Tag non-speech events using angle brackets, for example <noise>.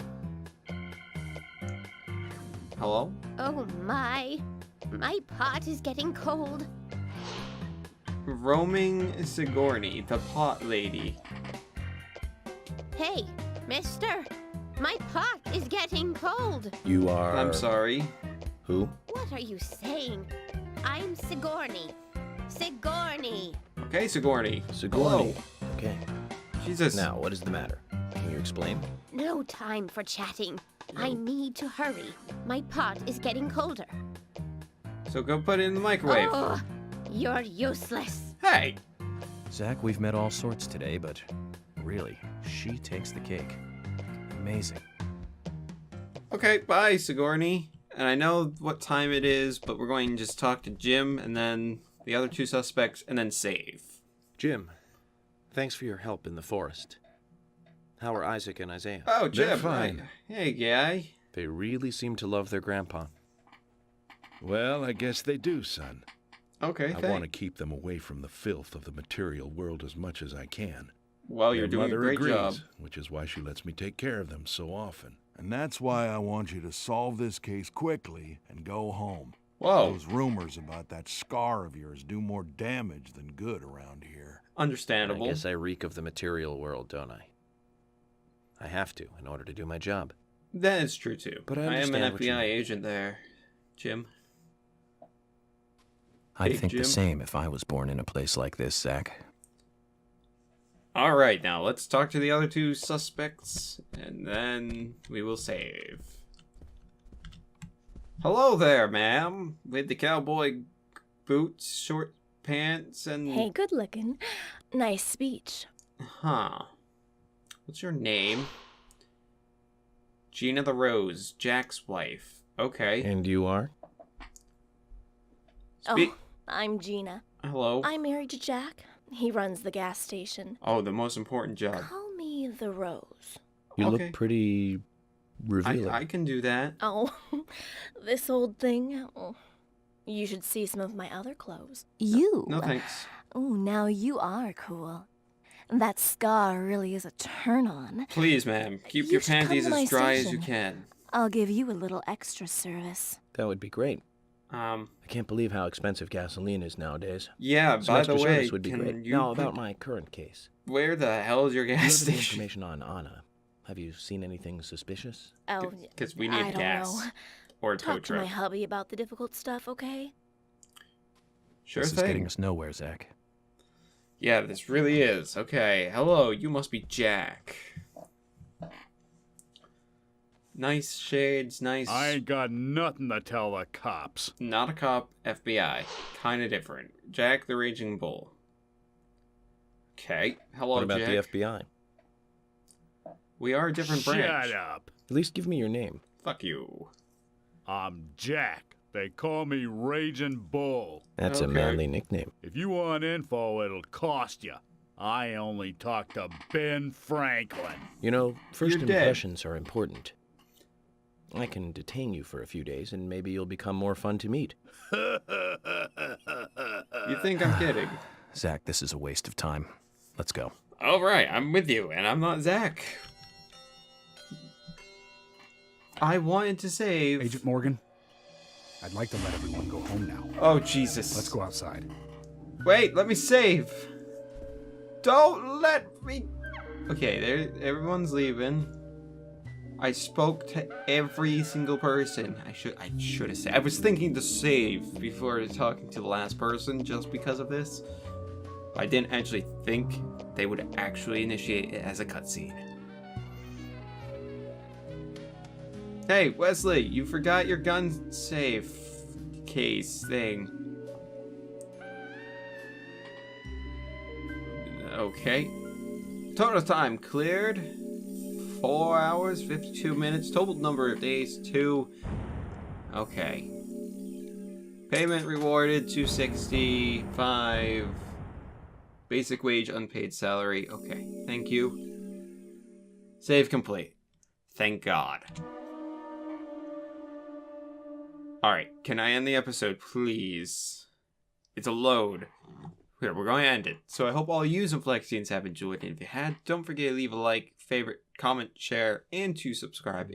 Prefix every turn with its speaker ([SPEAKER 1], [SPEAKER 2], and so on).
[SPEAKER 1] Hello?
[SPEAKER 2] Oh my. My pot is getting cold.
[SPEAKER 1] Roaming Sigourney, the pot lady.
[SPEAKER 2] Hey, mister. My pot is getting cold.
[SPEAKER 3] You are.
[SPEAKER 1] I'm sorry.
[SPEAKER 3] Who?
[SPEAKER 2] What are you saying? I'm Sigourney. Sigourney.
[SPEAKER 1] Okay, Sigourney.
[SPEAKER 3] Sigourney. Okay.
[SPEAKER 1] Hello. Jesus.
[SPEAKER 3] Now, what is the matter? Can you explain?
[SPEAKER 2] No time for chatting. I need to hurry. My pot is getting colder.
[SPEAKER 1] So go put it in the microwave.
[SPEAKER 2] Ugh, you're useless.
[SPEAKER 1] Hey!
[SPEAKER 3] Zach, we've met all sorts today, but really, she takes the cake. Amazing.
[SPEAKER 1] Okay, bye, Sigourney. And I know what time it is, but we're going to just talk to Jim and then the other two suspects and then save.
[SPEAKER 4] Jim, thanks for your help in the forest. How are Isaac and Isaiah?
[SPEAKER 1] Oh, Jim.
[SPEAKER 4] They're
[SPEAKER 1] right.
[SPEAKER 4] fine.
[SPEAKER 1] Hey, guy.
[SPEAKER 4] They really seem to love their grandpa.
[SPEAKER 5] Well, I guess they do, son.
[SPEAKER 1] Okay,
[SPEAKER 5] I want to keep them away from the filth of the material world as much as I can.
[SPEAKER 1] Well, Oh,
[SPEAKER 5] Their
[SPEAKER 1] you're doing a
[SPEAKER 5] mother
[SPEAKER 1] great
[SPEAKER 5] agrees,
[SPEAKER 1] job.
[SPEAKER 5] which is why she lets me take care of them so often.
[SPEAKER 6] And that's why I want you to solve this case quickly and go home.
[SPEAKER 1] Whoa.
[SPEAKER 6] Those rumors about that scar of yours do more damage than good around here.
[SPEAKER 4] I
[SPEAKER 1] Understandable.
[SPEAKER 4] guess I reek of the material world, don't I? I have to in order to do my job.
[SPEAKER 1] That is true too.
[SPEAKER 4] But I
[SPEAKER 1] am an
[SPEAKER 4] understand what you
[SPEAKER 1] FBI
[SPEAKER 4] mean.
[SPEAKER 1] agent there, Jim.
[SPEAKER 3] I'd
[SPEAKER 1] Hey,
[SPEAKER 3] think
[SPEAKER 1] Jim.
[SPEAKER 3] the same if I was born in a place like this, Zach.
[SPEAKER 1] All right, now let's talk to the other two suspects, and then we will save. Hello there, ma'am, with the cowboy boots, short pants, and
[SPEAKER 7] Hey, good looking. Nice speech.
[SPEAKER 1] huh? What's your name? Gina the Rose, Jack's wife. Okay.
[SPEAKER 4] And you are?
[SPEAKER 1] Spe- Oh.
[SPEAKER 7] Oh, I'm Gina.
[SPEAKER 1] Hello.
[SPEAKER 7] I'm married to Jack. He runs the gas station.
[SPEAKER 1] Oh, the most important job.
[SPEAKER 7] Call me the Rose.
[SPEAKER 4] You
[SPEAKER 1] Okay.
[SPEAKER 4] look pretty
[SPEAKER 1] I,
[SPEAKER 4] revealing.
[SPEAKER 1] I can do that.
[SPEAKER 7] Oh, <laughs> this old thing. Oh, You should see some of my other clothes.
[SPEAKER 8] You.
[SPEAKER 1] No thanks.
[SPEAKER 8] Oh, now you are cool. That scar really is a turn on.
[SPEAKER 1] Please, ma'am, keep
[SPEAKER 7] You
[SPEAKER 1] your
[SPEAKER 7] should come
[SPEAKER 1] panties
[SPEAKER 7] to my
[SPEAKER 1] as dry as you
[SPEAKER 7] station.
[SPEAKER 1] can.
[SPEAKER 8] I'll give you a little extra service.
[SPEAKER 4] That would be great.
[SPEAKER 1] Um,
[SPEAKER 4] I can't believe how expensive gasoline is nowadays.
[SPEAKER 1] yeah.
[SPEAKER 4] Some
[SPEAKER 1] Uh, by
[SPEAKER 4] extra
[SPEAKER 1] the way,
[SPEAKER 4] service would be
[SPEAKER 1] can
[SPEAKER 4] great.
[SPEAKER 1] you?
[SPEAKER 4] Now, about
[SPEAKER 1] put-
[SPEAKER 4] my current case.
[SPEAKER 1] Where the hell is your
[SPEAKER 4] Do you
[SPEAKER 1] <laughs> gas
[SPEAKER 4] have
[SPEAKER 7] <laughs>
[SPEAKER 4] any
[SPEAKER 1] station?
[SPEAKER 4] information on Anna? Have you seen anything suspicious?
[SPEAKER 7] Oh,
[SPEAKER 1] Because we need
[SPEAKER 7] I don't
[SPEAKER 1] gas
[SPEAKER 7] know.
[SPEAKER 1] or a tow
[SPEAKER 7] Talk to my
[SPEAKER 1] truck.
[SPEAKER 7] hubby about the difficult stuff, okay?
[SPEAKER 1] Sure
[SPEAKER 3] this is getting
[SPEAKER 1] thing.
[SPEAKER 3] us nowhere, Zach.
[SPEAKER 1] Yeah, this really is. Okay. Hello, you must be Jack. Nice shades. Nice.
[SPEAKER 9] I ain't got nothing to tell the cops.
[SPEAKER 1] Not a cop. FBI. Kind of different. Jack the Raging Bull. Okay. Hello,
[SPEAKER 4] what about
[SPEAKER 1] Jack.
[SPEAKER 4] the FBI?
[SPEAKER 1] We are a different
[SPEAKER 9] Shut
[SPEAKER 1] branch.
[SPEAKER 9] up.
[SPEAKER 4] At least give me your name.
[SPEAKER 1] Fuck you.
[SPEAKER 9] I'm Jack. They call me Raging Bull.
[SPEAKER 4] That's a
[SPEAKER 1] Okay.
[SPEAKER 4] manly nickname.
[SPEAKER 9] If you want info, it'll cost you. I only talk to Ben Franklin. <laughs>
[SPEAKER 4] You know, 1st
[SPEAKER 1] You're dead.
[SPEAKER 4] impressions are important. I can detain you for a few days, and maybe you'll become more fun to meet.
[SPEAKER 1] You
[SPEAKER 9] Uh,
[SPEAKER 1] think I'm kidding?
[SPEAKER 3] Zach, this is a waste of time. Let's go.
[SPEAKER 1] All right, I'm with you, and I'm not Zach. I wanted to save.
[SPEAKER 9] Agent Morgan, I'd like to let everyone go home now.
[SPEAKER 1] oh Jesus!
[SPEAKER 9] Let's go outside.
[SPEAKER 1] Wait, let me save. Don't let me. Okay, there. Everyone's leaving. I spoke to every single person. I should. I should have saved. I was thinking to save before talking to the last person, just because of this. I didn't actually think they would actually initiate it as a cutscene. Hey, Wesley, you forgot your gun safe case thing. Okay. Total time cleared. 4 hours, 52 minutes. Total number of days, 2. Okay. Payment rewarded, 265. Basic wage, unpaid salary. Okay, thank you. Save complete. Thank God. Alright, can I end the episode, please? It's a load. Here, we're going to end it. So I hope all you Zinflexians have enjoyed it. If you had, don't forget to leave a like, favorite, comment, share, and to subscribe.